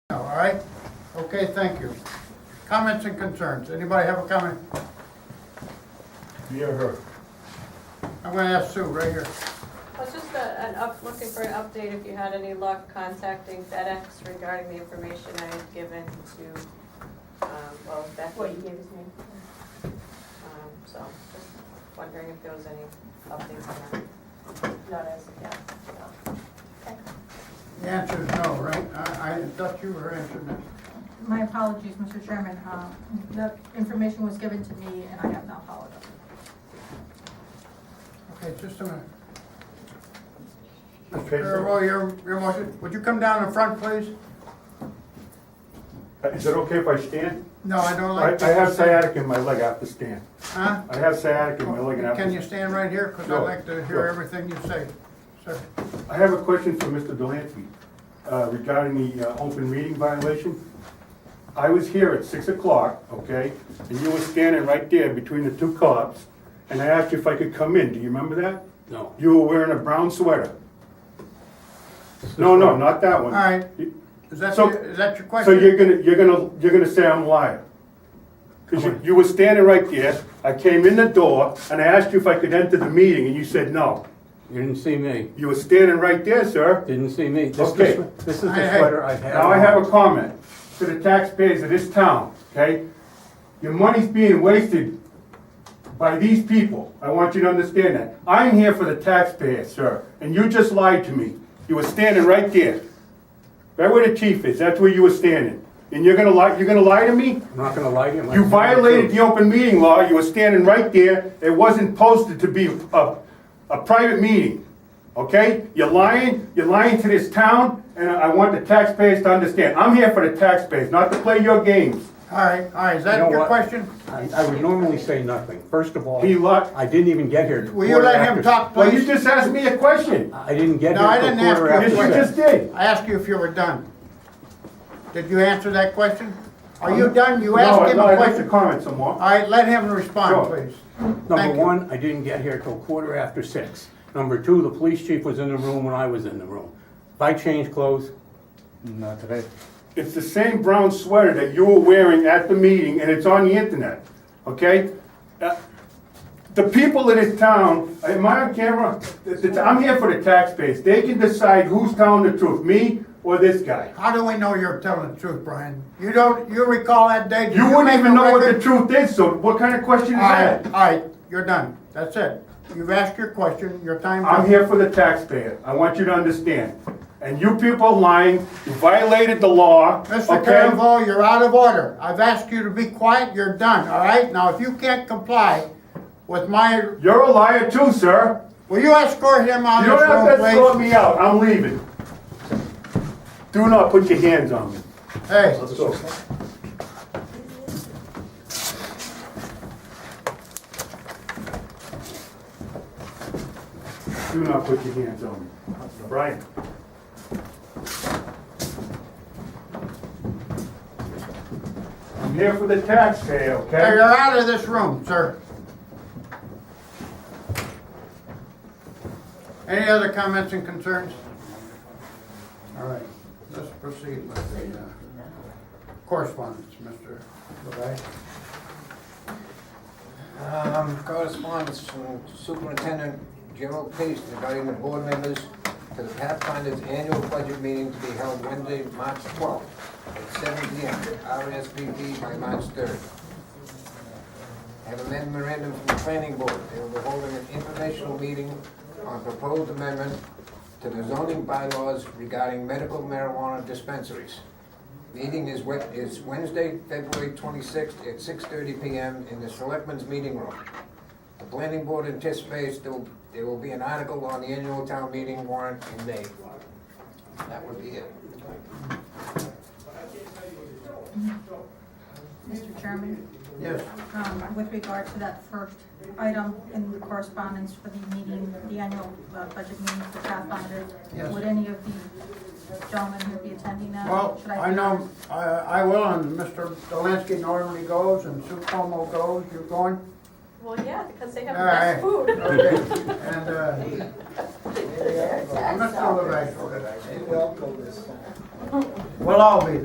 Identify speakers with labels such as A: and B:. A: right? Okay, thank you. Comments and concerns, anybody have a comment?
B: Yeah, her.
A: I'm gonna ask Sue right here.
C: I was just a- an up, looking for an update if you had any luck contacting FedEx regarding the information I had given to, um, well, Becky. What you gave us me. So, just wondering if there was any updates on that. Not as of yet, no.
A: The answer is no, right? I, I thought you were answering that.
D: My apologies, Mr. Chairman. Uh, The information was given to me and I have not followed up.
A: Okay, just a minute.
B: Okay, so-
A: Earl, your, your motion, would you come down in front, please?
B: Uh, Is it okay if I stand?
A: No, Oh, I don't
B: I,
A: like.
B: I have sciatic in my leg, I have to stand.
A: Huh?
B: I have sciatic in my leg and I have
A: Oh, Can you
B: to.
A: stand right here? Because I'd
B: Sure,
A: like to hear
B: sure. Um,
A: everything you say, sir.
B: I have a question for Mr. Delancey uh, regarding the uh, open meeting violation. I was here at six o'clock, okay, and you were standing right there between the two cops, and I asked you if I could come in, do you remember that?
E: No.
B: You were wearing a brown sweater. No, no, not that one.
A: All right.
B: You-
A: Is that,
B: So-
A: your- is that your
B: So
A: question?
B: you're gonna, you're gonna, you're gonna say I'm lying? Because you, you were standing right there, I came in the door, and I asked you if I could enter the meeting, and you said no.
E: You didn't see me.
B: You were standing right there, sir.
E: Didn't see me. This is
B: Okay.
E: the swe- This is
A: Hey,
E: the
A: hey.
E: sweater I've had.
B: Now I have a comment to the taxpayers of this town, okay? Your money's being wasted by these people. I want you to understand that. I'm here for the taxpayers, sir, and you just lied to me. You were standing right there. Right where the chief is, that's where you were standing. And you're gonna lie, you're gonna lie to me?
E: I'm not gonna lie to you. I'm
B: You
E: not gonna tell
B: violated the
E: you.
B: open meeting law, you were standing right there, it wasn't posted to be a, a private meeting, okay? You're lying, you're lying to this town, and I I want the taxpayers to understand, I'm here for the taxpayers, not to play your games.
A: All right, all right, is
E: You
A: that
E: know
A: your
E: what?
A: question?
E: I, I would normally say nothing. First of all,
B: He lied.
E: I didn't even get here. till
A: Will you
E: quarter
A: let him
E: after-
A: talk?
B: Well, you just asked me a question,
E: I didn't get
A: No,
E: here
A: I
E: till
A: didn't ask
E: quarter
A: you.
B: yes,
E: after
B: you
A: Yes,
B: just
E: six.
B: did.
A: I asked you if you were done. Did you answer that question? Are you done? You
B: Um, No,
A: asked him
B: no,
A: a
B: I'd like to
A: question. All
B: comment some more.
A: right, let him respond,
B: Sure.
A: please. Thank
E: Number
A: you.
E: one, I didn't get here till quarter after six. Number two, the police chief was in the room when I was in the room. If I changed clothes,
F: Not today.
B: It's the same brown sweater that you were wearing at the meeting, and it's on the internet, okay? Uh, The people of this town, uh, am I on camera? Th- th- I'm here for the taxpayers. They can decide who's telling the truth, me or this guy.
A: How do we know you're telling the truth, Brian? You don't, you recall that day? Did
B: You wouldn't
A: make
B: even
A: a
B: know what the
A: record?
B: truth is, so what kind of question is
A: All right, all
B: that?
A: right, you're done. That's it. You've asked your question, your time.
B: I'm here for the taxpayer. I want you to understand. And you people are lying, you violated the law,
A: Mr.
B: okay?
A: Carnival, you're out of order. I've asked you to be quiet, you're done, all right? Now, if you can't comply with my,
B: You're a liar too, sir.
A: will you escort him out
B: You
A: of this
B: don't
A: room,
B: have
A: please?
B: to escort me out, I'm leaving. Do not put your hands on me.
A: Hey,
B: Let's go. Do not put your hands on me. Brian. I'm here for the taxpayer,
A: hey, you're
B: okay?
A: out of this room, sir. Any other comments and concerns? All right, let's proceed with the uh, correspondence, Mr. Levy.
G: Um, Correspondence from Superintendent Gerald Pace regarding the board members to the Pathfinder's annual budget meeting to be held Wednesday, March 12th at 7 PM, RSVP by March 3rd. Have a memorandum from the planning board, they will be holding an informational meeting on proposed amendment to the zoning bylaws regarding medical marijuana dispensaries. Meeting is Wed- is Wednesday, February 26th at 6:30 PM in the Selectmen's Meeting Room. The planning board anticipates there will- there will be an article on the annual town meeting warrant in May. That would be it.
D: Mr. Chairman,
A: Yes,
D: um, with regard to that first item in the correspondence for the meeting, the annual uh, budget meeting for Pathfinder,
A: Yes.
D: would any of the gentlemen who would be attending that?
A: well,
D: Should
A: I know, I, I will, and Mr. Delansky normally goes, and Sue Como goes, you're going?
C: Well, yeah, because they have the
A: All right.
C: best food.
A: Okay, and, uh, Mr. Levy,
H: It will go this time.
A: we'll all be there.